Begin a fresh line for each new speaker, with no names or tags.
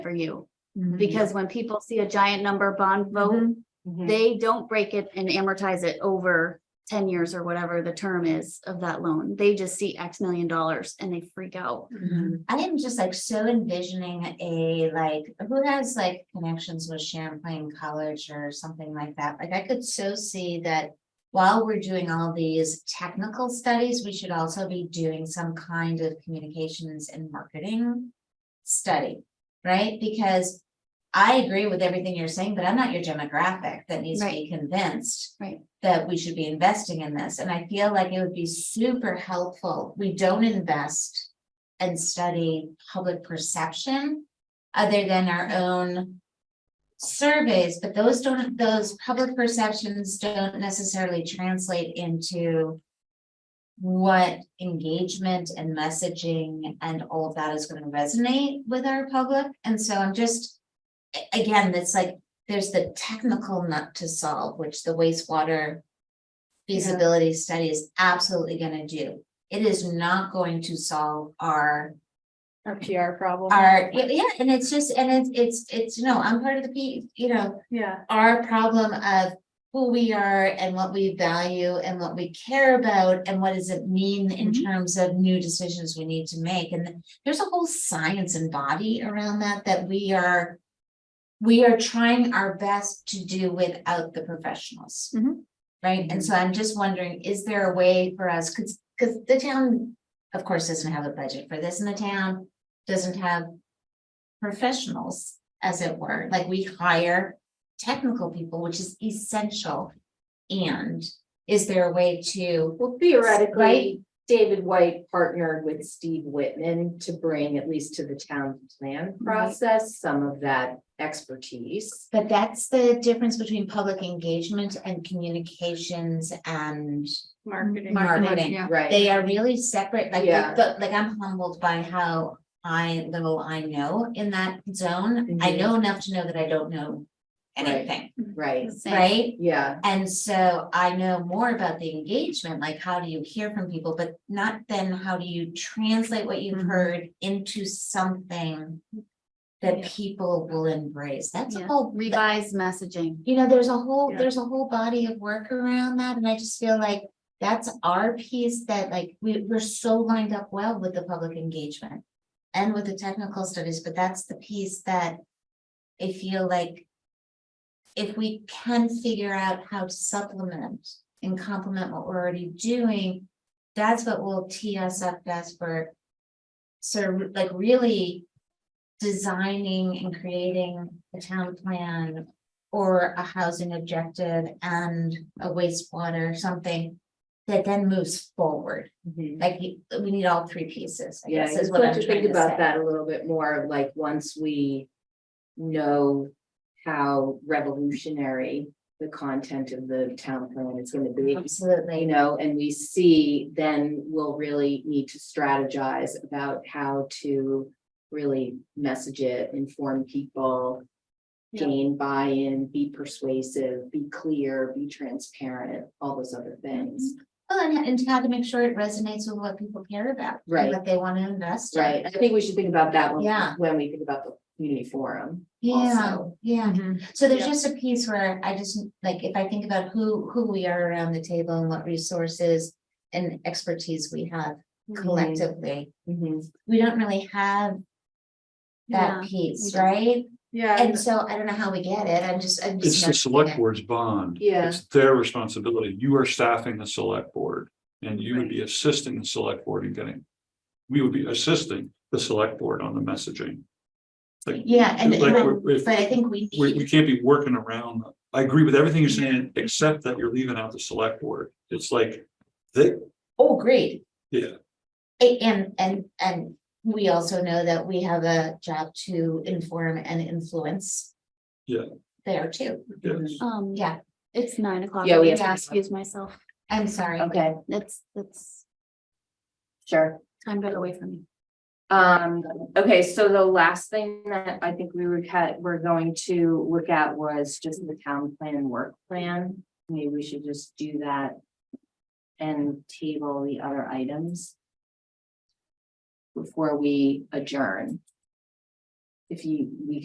for you.
Mm-hmm.
Because when people see a giant number bond vote,
Mm-hmm.
they don't break it and amortize it over ten years or whatever the term is of that loan. They just see X million dollars and they freak out.
I am just like so envisioning a like, who has like connections with Champlain College or something like that? Like I could so see that. While we're doing all these technical studies, we should also be doing some kind of communications and marketing. Study, right? Because I agree with everything you're saying, but I'm not your demographic that needs to be convinced.
Right.
That we should be investing in this, and I feel like it would be super helpful. We don't invest and study public perception other than our own surveys, but those don't, those public perceptions don't necessarily translate into what engagement and messaging and all of that is going to resonate with our public. And so I'm just a- again, it's like, there's the technical nut to solve, which the wastewater feasibility study is absolutely going to do it is not going to solve our,
Our PR problem.
our, yeah, and it's just, and it's, it's, it's, no, I'm part of the P, you know,
Yeah.
our problem of who we are and what we value and what we care about and what does it mean in
Mhm.
terms of new decisions we need to make. And there's a whole science and body around that, that we are, we are trying our best to do without the professionals.
Mhm.
Right? And so I'm just wondering, is there a way for us, because, because the town, of course, doesn't have a budget for this and the town doesn't have professionals, as it were, like we hire technical people, which is essential. And is there a way to,
Well,
Right?
theoretically, David White partnered with Steve Whitman to bring at least to the town plan
Right.
process, some of that expertise.
but that's the difference between public engagement and communications and
Marketing.
Marketing.
Yeah.
Right,
they are really separate, like,
Yeah.
but like I'm humbled by how I, little I know in that zone. I
Mhm.
know enough to know that I don't know
Right.
anything,
right,
Same.
right?
yeah,
And so I know more about the engagement, like how do you hear from people, but not then how do you translate what you've
Mhm.
heard into something
Yeah.
that people will embrace. That's a
Yeah.
whole, that-
Revised messaging.
you know, there's a whole,
Yeah.
there's a whole body of work around that. And I just feel like that's our piece that like we, we're so lined up well with the public engagement and with the technical studies, but that's the piece that I feel like if we can figure out how to supplement and complement what we're already doing, that's what will tee us up best for so like really designing and creating a town plan or a housing objective and a wastewater, something that then moves forward.
mhm.
Like you- we need all three pieces. I
yeah,
guess, is
it's
what
good
I'm
to think
trying to say.
about that a little bit more, like, once we know how revolutionary the content of the town plan is gonna be. you
Absolutely.
know, and we see, then we'll really need to strategize about how to really message it, inform people,
Yeah.
gain buy-in, be persuasive, be clear, be transparent, all those other things.
Well, and, and how to make sure it resonates with what people care about. and
Right.
What they want to invest. in.
Right, I think we should think about that when,
Yeah.
when we think about the community forum.
Yeah,
also.
yeah. So there's
Yeah.
just a piece where I just, like, if I think about who, who we are around the table and what resources and expertise we have
Mm-hmm.
collectively,
Mhm.
we don't really have
Yeah,
that
we
piece,
don't.
right?
Yeah.
And so I don't know how we get it. I'm just, I'm just.
It's the select board's bond.
Yeah.
It's their responsibility. You are staffing the select board and you would be assisting the select board in getting. We would be assisting the select board on the messaging.
Yeah, and,
Like,
but
we're- if-
I think we
We, we
need,
can't be working around. I agree with everything you're saying, except that you're leaving out the select board. It's like, they,
oh, great.
yeah,
A- And, and, and we also know that we have a job to inform and influence.
Yeah.
There too.
yes.
Um,
Yeah,
it's nine o'clock.
Yeah,
I
we
need
have
to
to-
excuse myself.
I'm sorry.
Okay,
That's, that's
sure.
time got away from me.
Um, okay, so the last thing that I think we were cut, we're going to look at was just the town plan work plan. Maybe we should just do that. And table the other items. Before we adjourn. if you, we